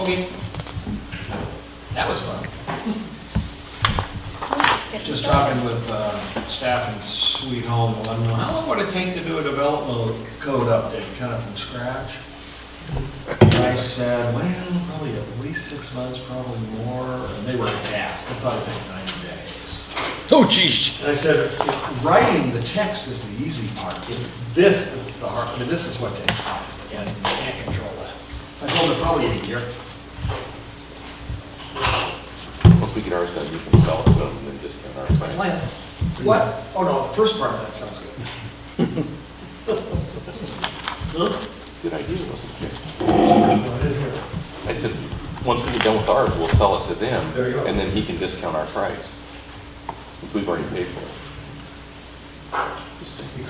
Okay. That was fun. Just talking with uh, staff in Sweet Home, I don't know, how long would it take to do a development code update, kind of from scratch? And I said, well, probably at least six months, probably more, and they were asked, they thought it'd take ninety days. Oh, jeez. And I said, writing the text is the easy part, it's this that's the hard, I mean, this is what takes time, and you can't control that. I told her probably a year. Once we get ours done, you can sell it to them and then discount ours. That's my plan. What? Oh, no, the first part of that sounds good. Good idea, wasn't it? No, I didn't hear it. I said, once we get done with ours, we'll sell it to them, There you go. and then he can discount our price, since we've already paid for it. Just saying.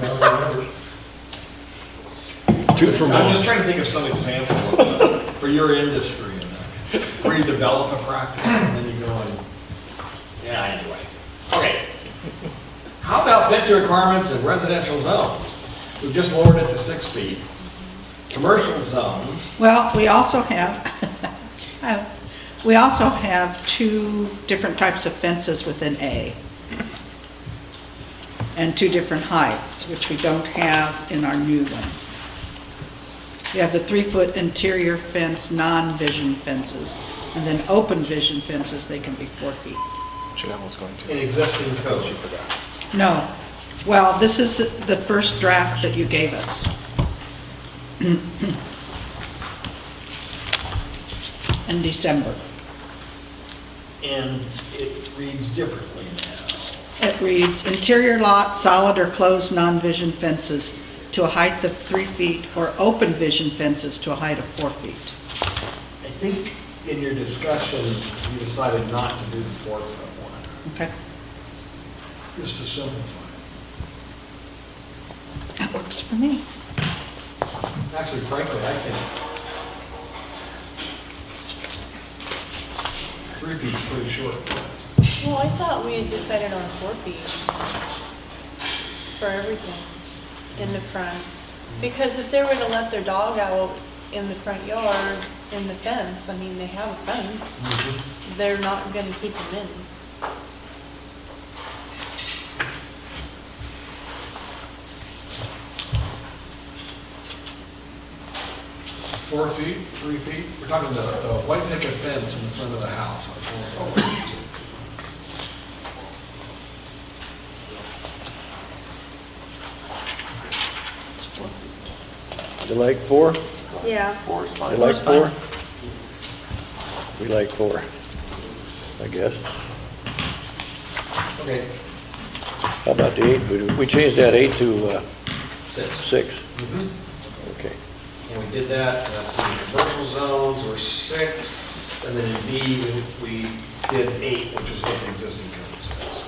Two for I'm one. just trying to think of some example of, uh, for your industry, and that, where you develop a practice, and then you go and, yeah, anyway. Okay. How about density requirements in residential zones? We've just lowered it to six feet. Commercial zones, Well, we also have, uh, we also have two different types of fences within A, and two different heights, which we don't have in our new one. We have the three-foot interior fence, non-vision fences, and then open vision fences, they can be four feet. in existing code. You forgot. No, well, this is the first draft that you gave us. In December. And it reads differently now. It reads, "Interior lot, solid or closed non-vision fences to a height of three feet, or open vision fences to a height of four feet." I think in your discussion, you decided not to do the four-foot one, Okay, just to simplify it. that works for me. Actually, frankly, I can. Three feet's pretty short. Well, I thought we had decided on four feet for everything in the front. Because if they were to let their dog out in the front yard, in the fence, I mean, they have a fence, they're not gonna keep them in. Four feet, three feet, we're talking the, the white picket fence in the front of the house. on the whole side. You like four? Yeah. Four is You fine. like Four's fine. four? We like four, I guess. Okay, How about the eight? We- We changed that eight to uh, six. six. Mhm. Okay. And we did that, uh, so the commercial zones were six, and then in B, we- we did eight, which is what the existing code says.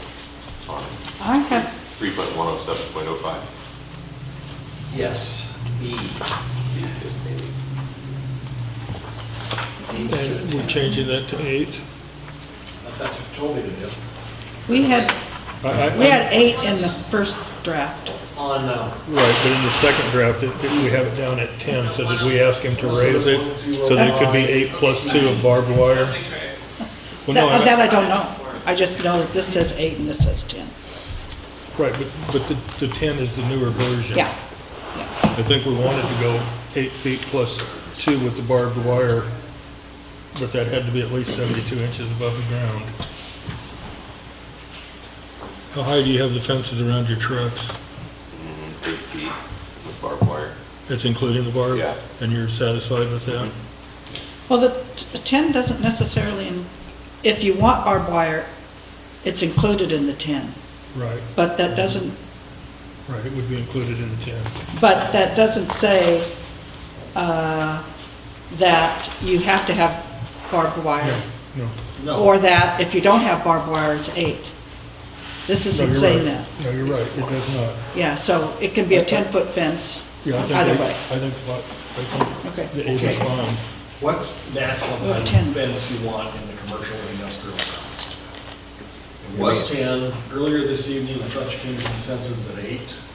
I have, Three point one oh seven point oh five Yes, B. is maybe. And we're changing that to eight. But That's what you told me to do. we had, I- I- we had eight in the first draft. On, uh, Right, but in the second draft, it- it- we have it down at 10, so did we ask him to raise it so that it could be eight plus two of barbed wire? Well, no, That I- that I don't know. I just know that this says eight and this says 10. Right, but, but the, the 10 is the newer version. Yeah, I think we wanted to go eight feet plus two with the barbed wire, but that had to be at least 72 inches above the ground. How high do you have the fences around your trucks? Mhm, Eight feet with barbed wire. That's including the barb? Yeah. And you're satisfied with that? Well, the t- 10 doesn't necessarily, in- if you want barbed wire, it's included in the 10, Right, but that doesn't, right, it would be included in the 10. but that doesn't say uh, that you have to have barbed wire, No. no. or that if you don't have barbed wire, it's eight. This No, isn't you're saying right. that. No, you're right, it does not. Yeah, so it can be a 10-foot fence, Yeah, I think either they- way. I think, what- I Okay. think the eight is Okay. fine. What's maximum Oh, 10. fence you want in the commercial and industrial zones? It was ten, earlier this evening, the Fletcher came to consensus at eight.